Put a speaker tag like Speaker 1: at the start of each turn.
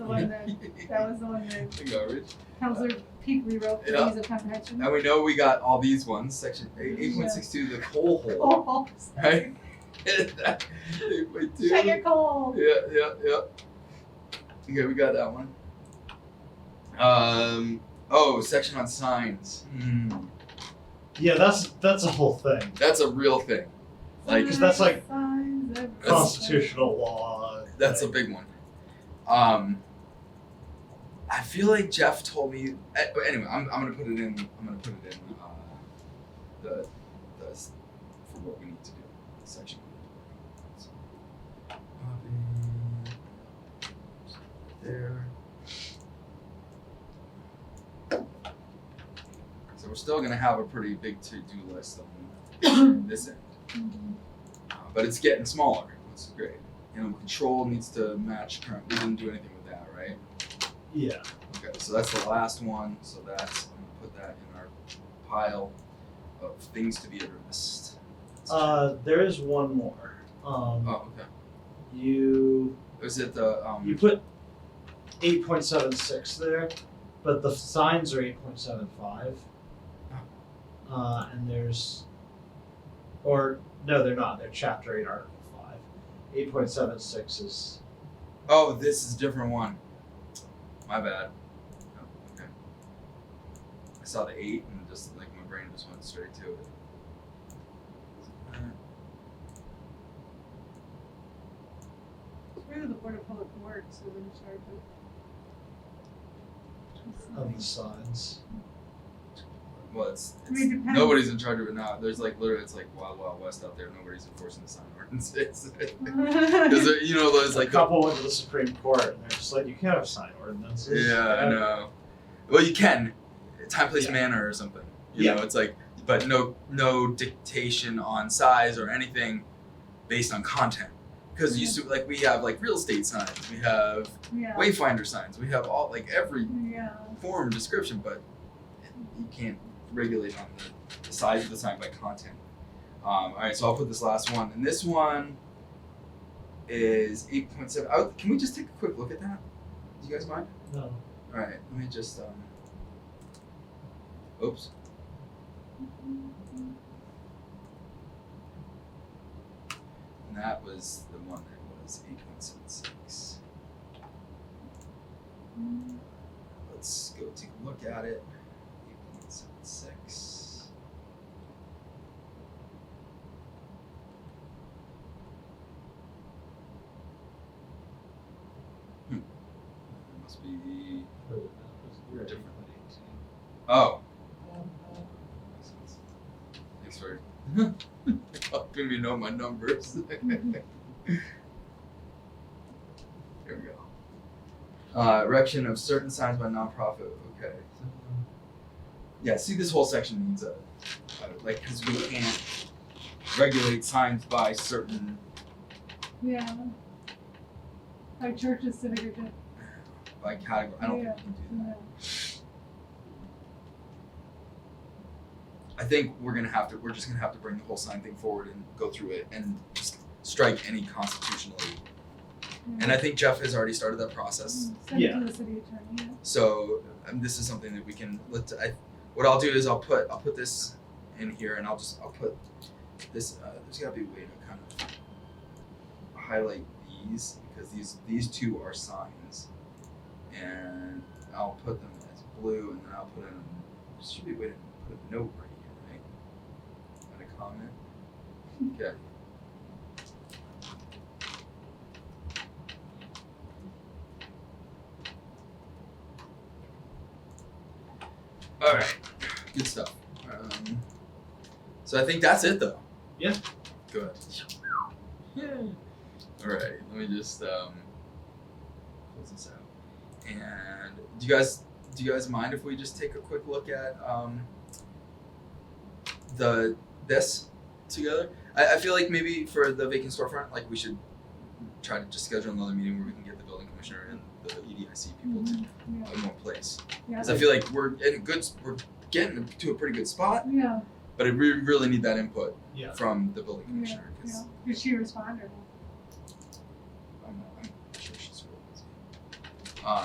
Speaker 1: one that, that was the one that
Speaker 2: There you go, Rich.
Speaker 1: Counselor Peak rewrote the
Speaker 2: Yeah.
Speaker 1: ease of comprehension.
Speaker 2: And we know we got all these ones. Section eight point six two, the coal hole.
Speaker 1: Oh,
Speaker 2: Right? eight point two.
Speaker 1: shut your coal.
Speaker 2: Yeah, yeah, yeah. Okay, we got that one. Um. Oh, section on signs. Hmm.
Speaker 3: Yeah, that's that's a whole thing.
Speaker 2: That's a real thing. Like
Speaker 3: Because that's like
Speaker 1: Signs everywhere.
Speaker 3: Constitutional law.
Speaker 2: that's a
Speaker 3: thing.
Speaker 2: big one. Um. I feel like Jeff told me. eh, but Anyway, I'm, I'm gonna put it in. I'm gonna put it in. Uh, the, the s- for what we need to do section. So, copy. There. So we're still gonna have a pretty big to-do list on this end.
Speaker 3: Mm-hmm.
Speaker 1: Mhm.
Speaker 2: Uh, but it's getting smaller, which is great. You know, control needs to match current. We didn't do anything with that, right?
Speaker 3: Yeah.
Speaker 2: Okay, so that's the last one. So that's I'm gonna put that in our pile of things to be addressed.
Speaker 3: Uh, there is one more. Um,
Speaker 2: oh, okay.
Speaker 3: You
Speaker 2: Is it the um?
Speaker 3: you put eight point seven six there, but the signs are eight point seven five. Uh, and there's, or no, they're not. They're chapter eight, article five. Eight point seven six is
Speaker 2: oh, this is a different one. My bad. Oh, okay. I saw the eight and just like my brain just went straight to it.
Speaker 1: We're the Board of Public Works, so we're in charge of.
Speaker 3: of the signs.
Speaker 2: Well, it's,
Speaker 1: I
Speaker 2: it's
Speaker 1: mean, it depends.
Speaker 2: nobody's in charge of it now. There's like literally, it's like wild, wild west out there. Nobody's enforcing the sign ordinances. Because you know those
Speaker 3: Like
Speaker 2: like
Speaker 3: a
Speaker 2: the-
Speaker 3: couple went to the Supreme Court and they're just like, you can't have sign ordinances.
Speaker 2: yeah, I know. Well, you can time, place,
Speaker 3: Yeah.
Speaker 2: manner, or something. You
Speaker 3: Yeah.
Speaker 2: know, it's like, but no, no dictation on size or anything based on content. Because you used to like we have like real estate signs, we have
Speaker 1: Yeah,
Speaker 2: wayfinder signs, we have all like every
Speaker 1: yeah.
Speaker 2: form description, but you can't regulate on the, the size of the sign by content. Um, all right, so I'll put this last one, and this one is eight point seven. Oh, can we just take a quick look at that? Do you guys mind?
Speaker 3: No.
Speaker 2: All right, let me just. Um, oops. And that was the one that was eight point seven six. Let's go take a look at it. 8.76. Hmm. It must be the. Oh. Makes sense. Thanks for helping me know my numbers. Here we go. Uh, erection of certain signs by nonprofit. Okay. so- Yeah, see, this whole section needs a, a like, because we can't regulate signs by certain.
Speaker 1: Yeah. Our church is segregated. uh,
Speaker 2: by category. I don't think we can do that.
Speaker 1: Yeah.
Speaker 2: I think we're gonna have to. We're just gonna have to bring the whole sign thing forward and go through it and just strike any constitutionally.
Speaker 1: Mm-hmm.
Speaker 2: And I think Jeff has already started that process.
Speaker 1: Send it
Speaker 3: Yeah.
Speaker 1: to the city attorney, yeah.
Speaker 2: So um, this is something that we can. Let I. What I'll do is I'll put I'll put this in here and I'll just I'll put this. Uh, there's gotta be a way to kind of highlight these because these these two are signs, and I'll put them as blue and then I'll put in. There should be a way to put a note right here, right? And a comment. Okay. All right, good stuff. Um, so I think that's it, though.
Speaker 3: Yeah.
Speaker 2: Good. All right, let me just um, close this out. And do you guys do you guys mind if we just take a quick look at um, the this together? I, I feel like maybe for the vacant storefront, like we should try to just schedule another meeting where we can get the building commissioner and the E EDIC people to
Speaker 1: Mhm,
Speaker 2: in one place.
Speaker 1: Yeah,
Speaker 2: Because I feel like we're in a good, we're getting to a pretty good spot,
Speaker 1: yeah,
Speaker 2: but we really need that input
Speaker 3: Yeah.
Speaker 2: from the building
Speaker 1: yeah,
Speaker 2: commissioner. 'cause-
Speaker 1: yeah. Did she respond or?
Speaker 2: Um,